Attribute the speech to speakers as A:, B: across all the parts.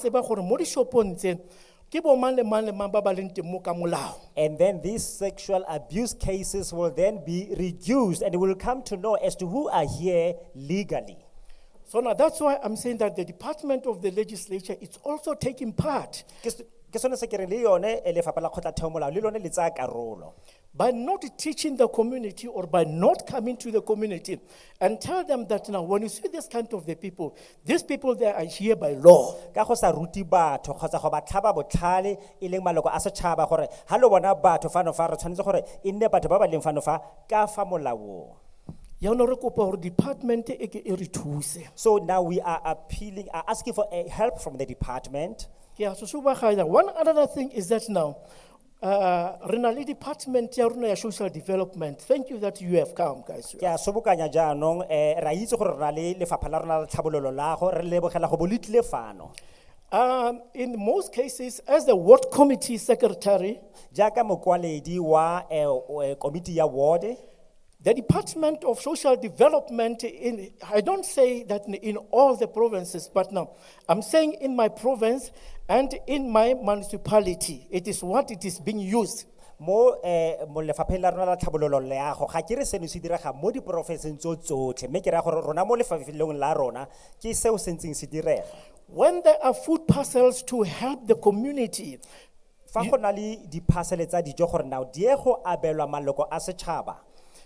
A: tseba gore mo dishopong tse ke bo mang le mang le mang ba ba leng teng mo ka molao
B: And then these sexual abuse cases will then be reduced and we will come to know as to who are here legally.
A: so now that's why i'm saying that the department of the legislature is also taking part
B: Ke s- ke sone se ke reng le yone, eh, lefapha la kgotlatheomolao le lone le tsaya karolo.
A: by not teaching the community or by not coming to the community and tell them that now when you see this kind of the people these people they are here by law
B: Ka go sa ruti batho kgotsa go ba tlhaba botlhale, e leng maloko a setšhaba gore, ha lo bona batho fano fa, re tshwanetse gore e nne batho ba ba leng fano fa ka fa molaong.
A: yaanong re kopa gore department e ke e re thuse
B: So now we are appealing, are asking for eh, help from the department.
A: ke a sosobaganya one another thing is that now uh, re na le department ya rona ya social development thank you that you have come guys
B: ke a sobokanya jaanong eh ra itse gore re na le lefapha la rona la tlhabololo lago re lebogela go bo le tlile fano
A: Um, in most cases, as the ward committee secretary,
B: jaaka mokwaledi wa eh, o- eh, komiti ya ward
A: the Department of Social Development, in, I don't say that in, in all the provinces, but now I'm saying in my province and in my municipality, it is what it is being used.
B: mo eh mo lefapheng la rona la tlhabololo leago ga ke re seno se direga mo diporofenseng tso tsotlhe mme ke raya gore rona mo lefafelong la rona ke seo se ntseng se direga
A: When there are food parcels to help the community,
B: fa go na le diphasele tsa dijo gore nao di ye go abelwa maloko a setšhaba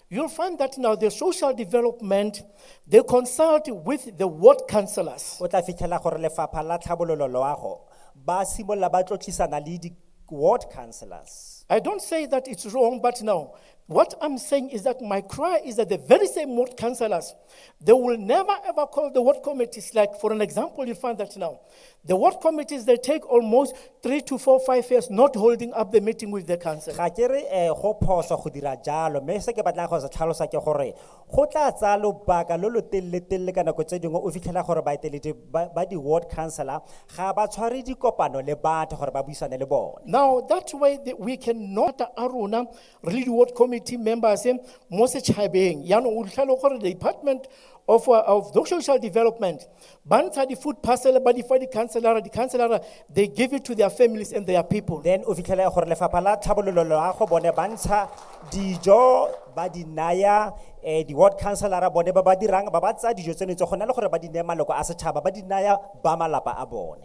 A: you'll find that now the social development, they consult with the ward councillors.
B: o tla fitlhela gore lefapha la tlhabololo loago ba simolola ba tlotlisana le di-ward councillors
A: I don't say that it's wrong, but no. What I'm saying is that my cry is that the very same ward councillors, they will never ever call the ward committees. Like, for an example, you find that now. The ward committees, they take almost three to four, five years not holding up the meeting with the council.
B: ga ke re eh go phoso go dira jalo mme se ke batlang go se tlhalosa ke gore go tla tsaya lobaka lo lo telele-telele ka nako tse dingwe o fitlhela gore baeteledi ba ba di-ward councillor ga ba tshware dikopano le batho gore ba buisane le bone
A: Now, that way that we cannot, Aruna, really the ward committee members, eh, Moses Chabeng, Yano Ulchalokor, the Department of, uh, of the Social Development, Banta the food parcel, but if the councillor, the councillor, they give it to their families and their people.
B: then o fitlhela gore lefapha la tlhabololo loago bone ba ntsha dijo ba di naya eh di-ward councillora bone ba ba dirang ba ba tsaya dijo tseno tse go na le gore ba di neye maloko a setšhaba ba di naya ba malapa a bone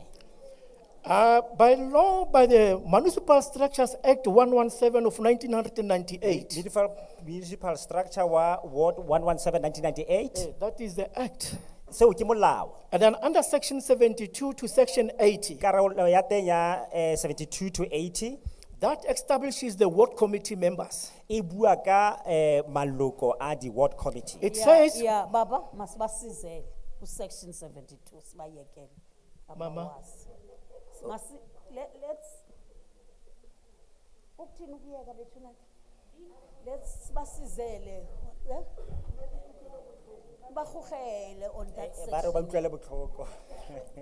A: Uh, by law, by the Municipal Structures Act one one seven of nineteen hundred and ninety-eight,
B: Municipal- municipal structure wa ward 117 1998
A: that is the act.
B: seo ke molao
A: And then under section seventy-two to section eighty,
B: karolo ya teng ya eh, 72 to 80
A: that establishes the ward committee members.
B: e bua ka eh, maloko a di-ward committee
A: It
C: Yeah,
A: says.
C: Yeah, baba, masibasizele, section seventy-two, sibayekele.
A: Mama.
C: abawazi. Masi, let, let's. Ukuthini ukuyeka bethu na? Let's sibasizele, eh? Bahugele on that
A: Eh,
B: ba re ba utlwele
C: section.
B: botlhoko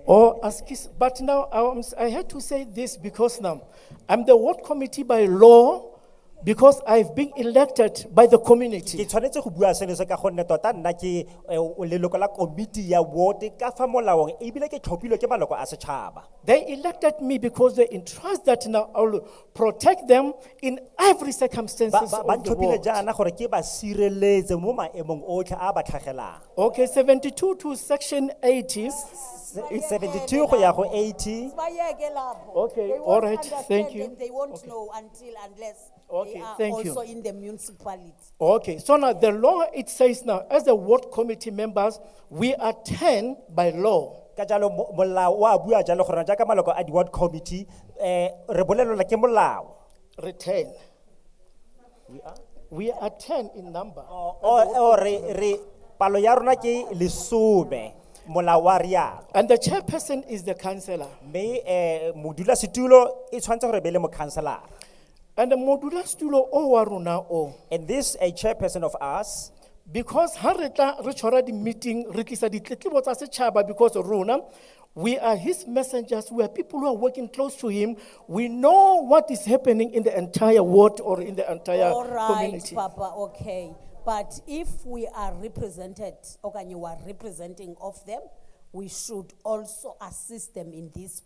A: Or as kis- but now I was- I had to say this because now I'm the ward committee by law because I've been elected by the
B: ke
A: community.
B: tshwanetse go bua seno se ka gonne tota nna ke eh, o- leloko la komiti ya ward ka fa molaong ebile ke tlhophilwe ke maloko a setšhaba
A: They elected me because they entrust that now I'll protect them in every
B: Ba-
A: circumstances
B: ba ba
A: of the
B: ntlhophile
A: world.
B: jaana gore ke ba sireletse mo maemong otlhe a ba tlhagelang
A: Okay, seventy-two to section eighties.
B: Se- 72 go ya go 80
C: Sibayeke lapho.
A: Okay,
C: They won't
A: all right, thank
C: understand
A: you.
C: and They won't know until unless
A: Okay,
C: they are
A: thank you.
C: also in the municipality.
A: Okay, so now the law, it says now, as the ward committee members, we are ten by law.
B: ka jalo mo- molao o a bua jalo gore jaaka maloko a di-ward committee eh re bolelelwa ke molao
A: Retain. We are ten in number.
B: o o re re palo ya rona ke lesome molao wa rialo
A: And the chairperson is the councillor.
B: mme eh modulasetulo e tshwanetse gore e be le mocounselara
A: And the modula stulo o waruna o.
B: and this a chairperson of us
A: Because harita richora di meeting, rikisa di tletlebo tsa setšhaba because runa, we are his messengers, we are people who are working close to him. We know what is happening in the entire world or in the entire
C: All right,
A: community.
C: Papa, okay. But if we are represented, okay, you are representing of them, we should also assist them in this